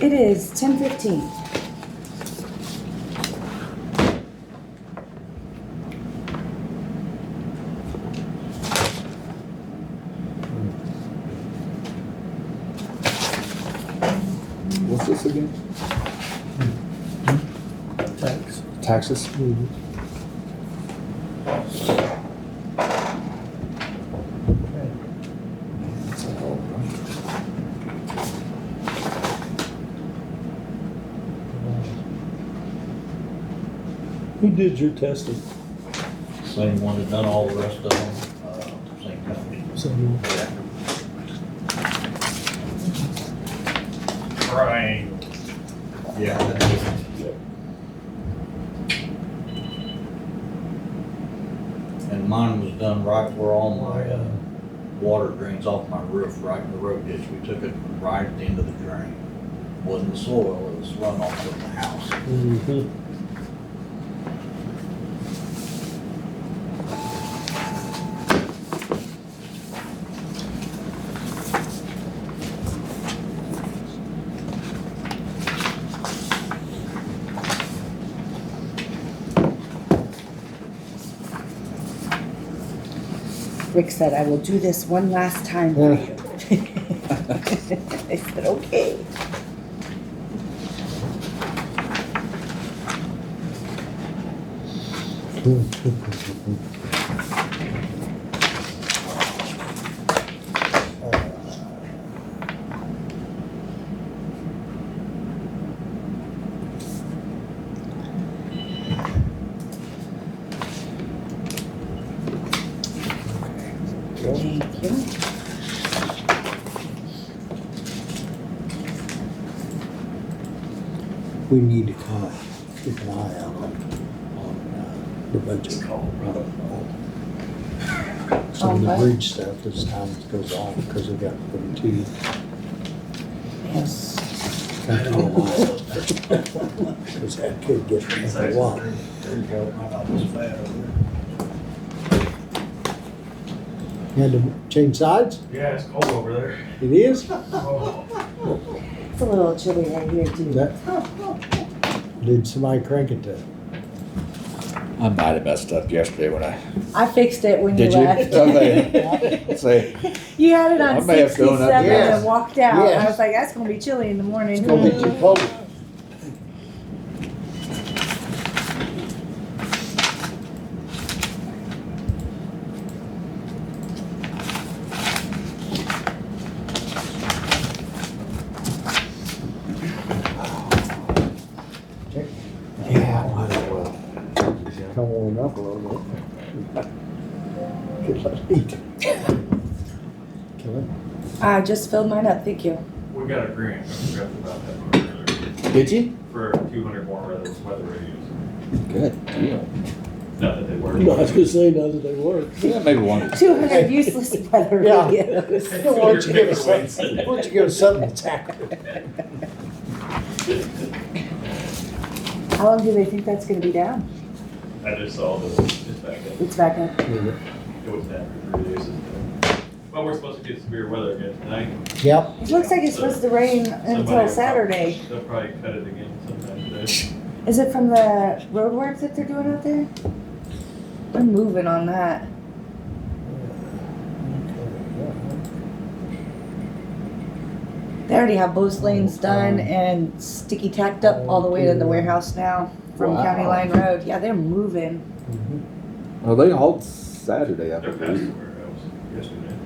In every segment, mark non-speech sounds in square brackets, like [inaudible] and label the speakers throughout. Speaker 1: It is ten fifteen.
Speaker 2: What's this again?
Speaker 3: Thanks.
Speaker 2: Taxes? It's like, all right.
Speaker 3: Who did your testing?
Speaker 4: Same one that done all the rest of them, uh, same company.
Speaker 3: Someone-
Speaker 4: Right. Yeah. that's it. And mine was done right where all my, uh, water drains off my roof, right in the road ditch. We took it right at the end of the drain. Wasn't the soil, it was runoff from the house.
Speaker 3: Mhm.
Speaker 1: Rick said, I will do this one last time for you. [laughs] I said, okay. Thank you.
Speaker 5: we need to kind of keep an eye out on, on uh, the budget Colorado. Some of the
Speaker 1: Okay.
Speaker 5: bridge stuff as time goes on, because we got them two.
Speaker 1: Yes.
Speaker 5: Because that could get a lot.
Speaker 4: There you go. I thought it was bad over there.
Speaker 5: You had to change sides?
Speaker 6: Yeah, it's cold over there.
Speaker 5: It is?
Speaker 6: Oh,
Speaker 1: It's a little chilly right here too.
Speaker 5: That, did somebody crank it to?
Speaker 2: I might have messed up yesterday when I,
Speaker 1: I fixed it when you
Speaker 2: did you?
Speaker 1: left.
Speaker 2: [laughs] Okay. Say,
Speaker 1: [laughs] You had it
Speaker 2: I
Speaker 1: on
Speaker 2: may have
Speaker 1: sixty-seven
Speaker 2: thrown up.
Speaker 1: and
Speaker 5: Yes.
Speaker 1: walked out. I
Speaker 5: Yes.
Speaker 1: was like, that's gonna be chilly in the morning.
Speaker 5: It's gonna be too cold. Yeah, might as well. Come on up a little bit. Get some heat. Kill it.
Speaker 1: I just filled mine up, thank you.
Speaker 6: we got a grant, I forgot about that earlier,
Speaker 2: did you?
Speaker 6: for two hundred more weather, weather radios.
Speaker 2: Good deal.
Speaker 6: Not that they work.
Speaker 3: No, I was gonna say, now that they work.
Speaker 2: Yeah, maybe one.
Speaker 1: Two hundred useless weather
Speaker 5: [laughs] Yeah.
Speaker 1: radios.
Speaker 5: Why don't you give us, why don't you give us something to tackle?
Speaker 1: [laughs] How long do they think that's gonna be down?
Speaker 6: I just saw the, just back up,
Speaker 1: It's back up.
Speaker 5: Mm-hmm.
Speaker 6: it was down for three days. Well, we're supposed to get severe weather again tonight.
Speaker 5: Yep.
Speaker 1: It looks like it's supposed to rain
Speaker 6: Somebody will
Speaker 1: until
Speaker 6: prob-
Speaker 1: Saturday.
Speaker 6: They'll probably cut it again sometime today.
Speaker 1: Is it from the road work that they're doing out there? They're moving on that. They already have both lanes done and sticky tacked up all the way to the warehouse now from County
Speaker 2: Wow.
Speaker 1: Line Road. Yeah, they're moving.
Speaker 2: Well, they hold Saturday, I
Speaker 6: They're past the
Speaker 2: believe.
Speaker 6: warehouse yesterday.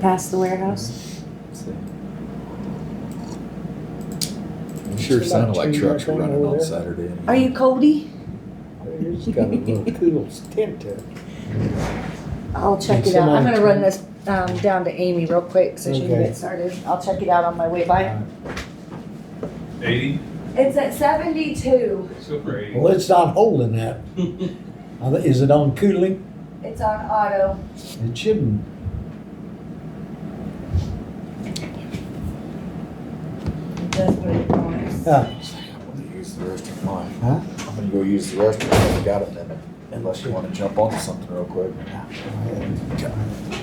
Speaker 1: Past the warehouse.
Speaker 2: It Sure sounded like
Speaker 5: Change
Speaker 2: trucks were
Speaker 5: that thing
Speaker 2: running
Speaker 5: over
Speaker 2: on
Speaker 5: there.
Speaker 2: Saturday.
Speaker 1: Are you Cody?
Speaker 5: It's [laughs] got a little cool tint to it.
Speaker 1: I'll check it out. I'm gonna run this um, down to Amy real quick so she can
Speaker 5: Okay.
Speaker 1: get started. I'll check it out on my way by.
Speaker 6: Eighty,
Speaker 1: It's at seventy-two.
Speaker 6: let's go for eighty.
Speaker 5: Well, it's not holding [laughs] that. I thi- Is it on cooling?
Speaker 1: It's on auto.
Speaker 5: It shouldn't.
Speaker 1: It does what it wants.
Speaker 5: Uh,
Speaker 2: I'm gonna use the restroom. Why?
Speaker 5: Huh?
Speaker 2: I'm gonna go use the restroom. I got a minute, unless you wanna jump onto something real quick.
Speaker 5: I